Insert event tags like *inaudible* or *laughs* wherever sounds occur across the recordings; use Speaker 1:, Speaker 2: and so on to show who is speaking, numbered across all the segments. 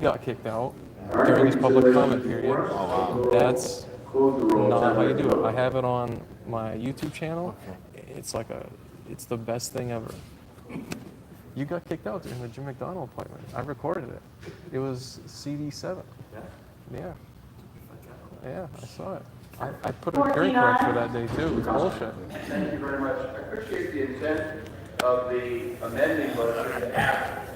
Speaker 1: got kicked out during this public comment period. That's not how you do it. I have it on my YouTube channel. It's like a, it's the best thing ever. You got kicked out during the Jim McDonald appointment. I recorded it. It was CD7. Yeah. Yeah, I saw it. I, I put a hearing correct for that day too. It was bullshit.
Speaker 2: Thank you very much. I appreciate the intent of the amending motion to ask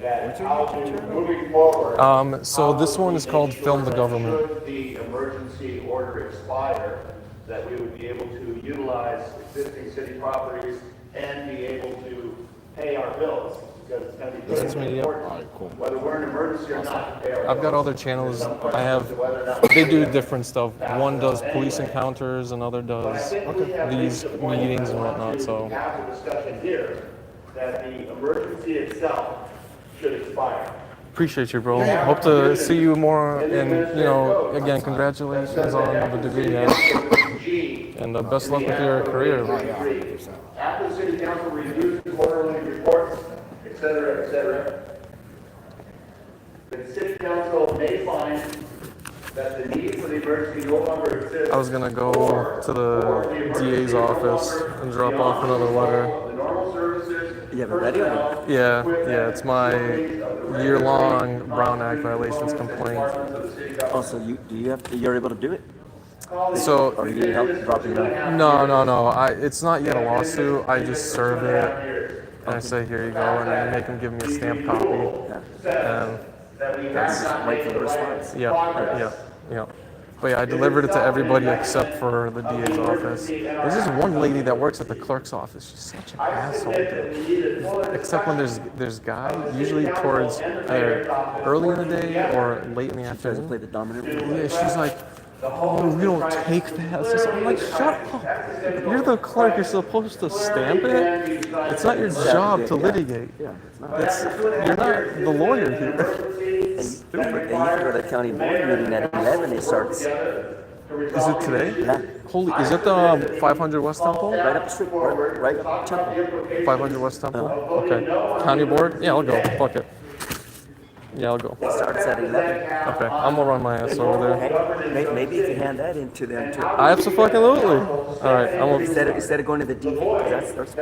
Speaker 2: that how to, moving forward.
Speaker 1: Um, so this
Speaker 2: how
Speaker 1: one
Speaker 2: we
Speaker 1: is called
Speaker 2: ensure
Speaker 1: Film the
Speaker 2: that
Speaker 1: Government.
Speaker 2: Should the emergency order expire, that we would be able to utilize existing city properties and be able to pay our bills, because it's gonna be
Speaker 1: That's me,
Speaker 2: very
Speaker 1: yep.
Speaker 2: important, whether we're in emergency or not, to pay our
Speaker 1: I've got
Speaker 2: bills.
Speaker 1: other channels.
Speaker 2: There's some
Speaker 1: I have.
Speaker 2: question as to whether or not we
Speaker 1: They do
Speaker 2: pay them.
Speaker 1: different stuff. One does police encounters, another
Speaker 2: But I
Speaker 1: does
Speaker 2: think we have
Speaker 1: these
Speaker 2: reached the point
Speaker 1: meetings and
Speaker 2: where I
Speaker 1: whatnot.
Speaker 2: want to
Speaker 1: So
Speaker 2: Have the discussion here that the emergency itself should expire.
Speaker 1: appreciate you, bro. Hope to see you more. And you know, again, congratulations on the degree, man.
Speaker 2: G.
Speaker 1: And uh, best luck with your career.
Speaker 2: After the city council reviews the quarterly reports, et cetera, et cetera, the city council may find that the need for the emergency no longer exists.
Speaker 1: I was gonna go to the DA's office and drop off another letter.
Speaker 2: The normal services.
Speaker 3: You have a radio?
Speaker 2: personnel,
Speaker 1: Yeah,
Speaker 2: equipment,
Speaker 1: yeah, it's my
Speaker 2: facilities of the
Speaker 1: year-long Brown Act
Speaker 2: constituted
Speaker 1: violations
Speaker 2: components
Speaker 1: complaint.
Speaker 2: and departments of the city government.
Speaker 3: Also, you do you have you're able to do it?
Speaker 1: So
Speaker 3: Or you need help dropping that?
Speaker 1: no, no, no. I it's not yet a lawsuit. I just serve it and I say here you go, and they make them give me a stamped copy.
Speaker 2: Says that we have not made
Speaker 3: wait for
Speaker 2: the
Speaker 3: the
Speaker 2: right
Speaker 3: response.
Speaker 1: Yeah, yeah,
Speaker 2: progress.
Speaker 1: yeah. But yeah, I delivered it to everybody except for the DA's office. There's this one lady that works at the clerk's office. She's such an
Speaker 2: I
Speaker 1: asshole.
Speaker 2: submit that
Speaker 1: dude.
Speaker 2: we need a full
Speaker 1: Except when there's there's guy, usually towards either early in the day or late in the
Speaker 3: Tries to play
Speaker 1: afternoon.
Speaker 3: the dominant.
Speaker 1: Yeah, she's like, oh, we don't take that. I'm like, shut up. You're the clerk. You're supposed to stamp it. It's not your job to litigate.
Speaker 3: Yeah, it's not.
Speaker 1: That's, you're not the lawyer here. *laughs*
Speaker 3: And you, and you go to the county board meeting at eleven. It starts right
Speaker 1: Is it today?
Speaker 3: Yeah.
Speaker 1: Holy, is it the um, 500 West Temple?
Speaker 3: up the street, right, right up Temple.
Speaker 1: 500 West Temple? Okay. County board? Yeah, I'll go. Fuck it. Yeah, I'll go.
Speaker 3: It starts at eleven.
Speaker 1: Okay, I'm gonna run my ass over there.
Speaker 3: Hey, may, maybe you can hand that in to them too.
Speaker 1: Absolutely. All right, I'm gonna.
Speaker 3: Instead of, instead of going to the DA, 'cause that's, that's